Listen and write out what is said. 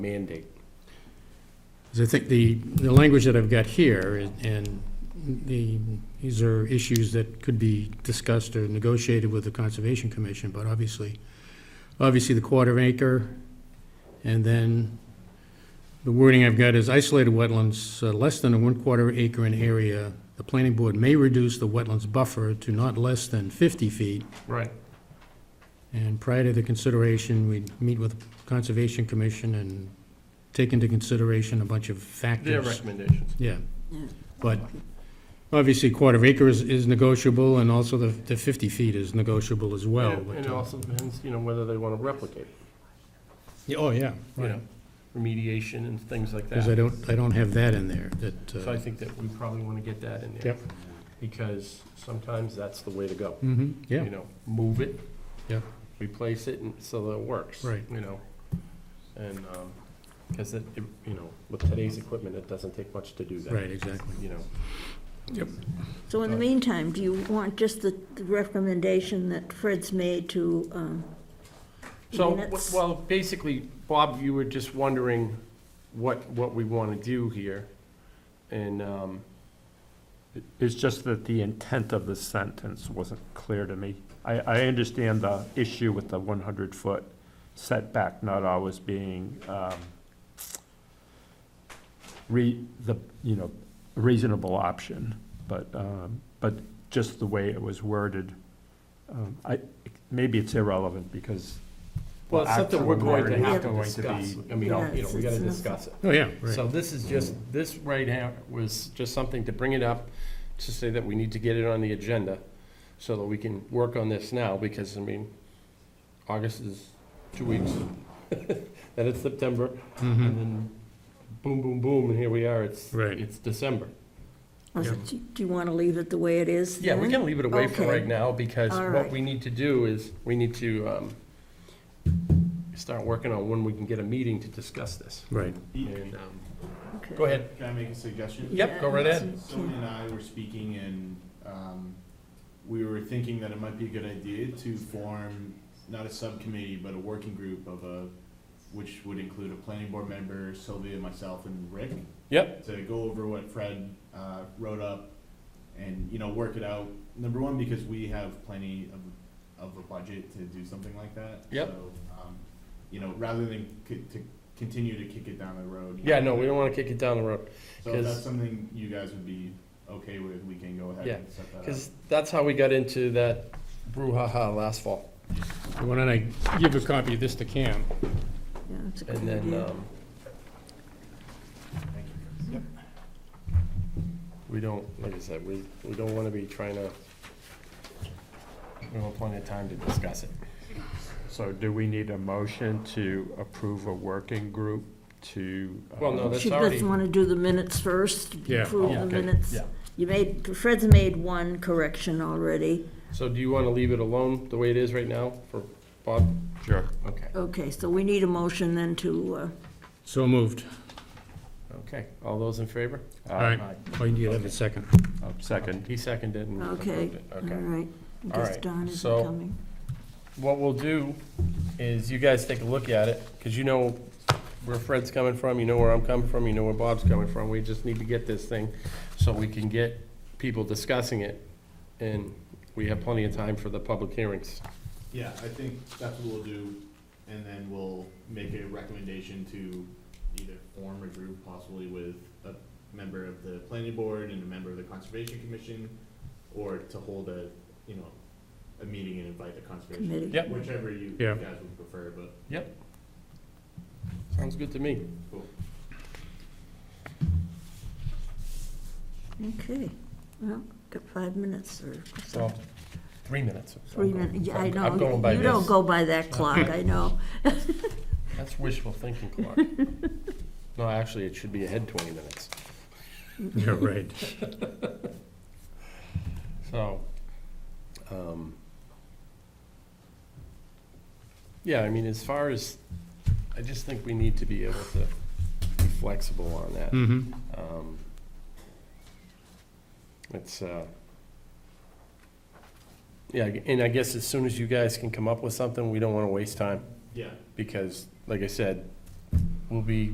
mandate. Because I think the, the language that I've got here, and the, these are issues that could be discussed or negotiated with the Conservation Commission, but obviously, obviously the quarter acre, and then the wording I've got is isolated wetlands, uh, less than a one quarter acre in area, the planning board may reduce the wetlands buffer to not less than fifty feet, Right. and prior to the consideration, we'd meet with Conservation Commission and take into consideration a bunch of factors. Their recommendations. Yeah, but obviously quarter acre is, is negotiable and also the, the fifty feet is negotiable as well. And but, and it uh, also depends, you know, whether they want to replicate, yeah, Oh, yeah, you right, know, remediation and things like because I that. don't, I don't have that in there, that, So I uh, think that we probably want to get that in there. Yep. Because sometimes that's the way to go. mhm, yeah, You know, move it. Yep. Replace it and so that it works. Right. You know, and, because it, it- you know, with today's equipment, it doesn't take much to do that. right, exactly. You know, So in the meantime, do you want just the the recommendation that Fred's made to, um, So, w- Minutes. well, basically, Bob, you were just wondering what, what we want to do here. And, um, It's just that the intent of the sentence wasn't clear to me. I, I understand the issue with the one hundred foot setback not always being, um, re, the, you know, reasonable option, but, um, but just the way it was worded, um, I, maybe it's irrelevant because. well, it's something we're going to Actually, have to going to be- discuss. I mean, you know, we got to Yes, it's- discuss it. Oh, yeah, right, So this is just, this right here was just something to bring it up, to say that we need to get it on the agenda so that we can work on this now, because, I mean, August is two weeks, then it's September, and mhm, then boom, boom, boom, and here we are, it's, Right. it's December. or Yeah. do do you want to leave it the way it is? Yeah, we then? can leave it away for Okay. right now, because All what right. we need to do is, we need to um, start working on when we can get a meeting to discuss this. right, And, um, Okay. Go ahead. Can I make a suggestion? Yep, go right ahead. Someone and I were speaking and, um, we were thinking that it might be a good idea to form, not a subcommittee, but a working group of a, which would include a planning board member, Sylvia, myself, and Rick. Yep. To go over what Fred, uh, wrote up and, you know, work it out. Number one, because we have plenty of, of a budget to do something like that. Yep. So, um, you know, rather than co- to continue to kick it down the road. you Yeah, no, know, we don't want to kick it down the road, so if 'Cause- that's something you guys would be okay with, we can go ahead Yeah, and set that up. because that's how we got into that brouhaha last fall. So why don't I give a copy of this to Cam? Yeah, that's a good And then, idea. um, we don't, like I said, we, we don't want to be trying to, we want plenty of time to discuss it. So do we need a motion to approve a working group to? uh, Well, no, that's She already- doesn't want to do the minutes first, Yeah. approve the Okay, minutes. yeah. You made, Fred's made one correction already. So do you want to leave it alone the way it is right now for Bob? Sure. Okay. Okay, so we need a motion then to, uh, So moved, Okay, all those in favor? all right, oh, you have a second, Uh, Second. He seconded and okay, approved it, all okay. right. Because right, Don isn't so- coming. What we'll do is you guys take a look at it, because you know where Fred's coming from, you know where I'm coming from, you know where Bob's coming from. We just need to get this thing so we can get people discussing it. And we have plenty of time for the public hearings. Yeah, I think that's what we'll do, and then we'll make a recommendation to either form a group possibly with a member of the planning board and a member of the conservation commission, or to hold a, you know, a meeting and invite the conservation. Committee. Yep. Whichever you you Yeah. guys would prefer, but Sounds good to me. Okay, well, got five minutes or Well, three minutes. three minutes. I know. I'm going by You don't this. go by that clock, I know. That's wishful thinking, Clark. No, actually, it should be ahead twenty minutes. yeah, right. So, um, yeah, I mean, as far as, I just think we need to be able to be flexible on that. Mm-hmm, Um, It's, uh, yeah, and I guess as soon as you guys can come up with something, we don't want to waste time, yeah, because, like I said, will be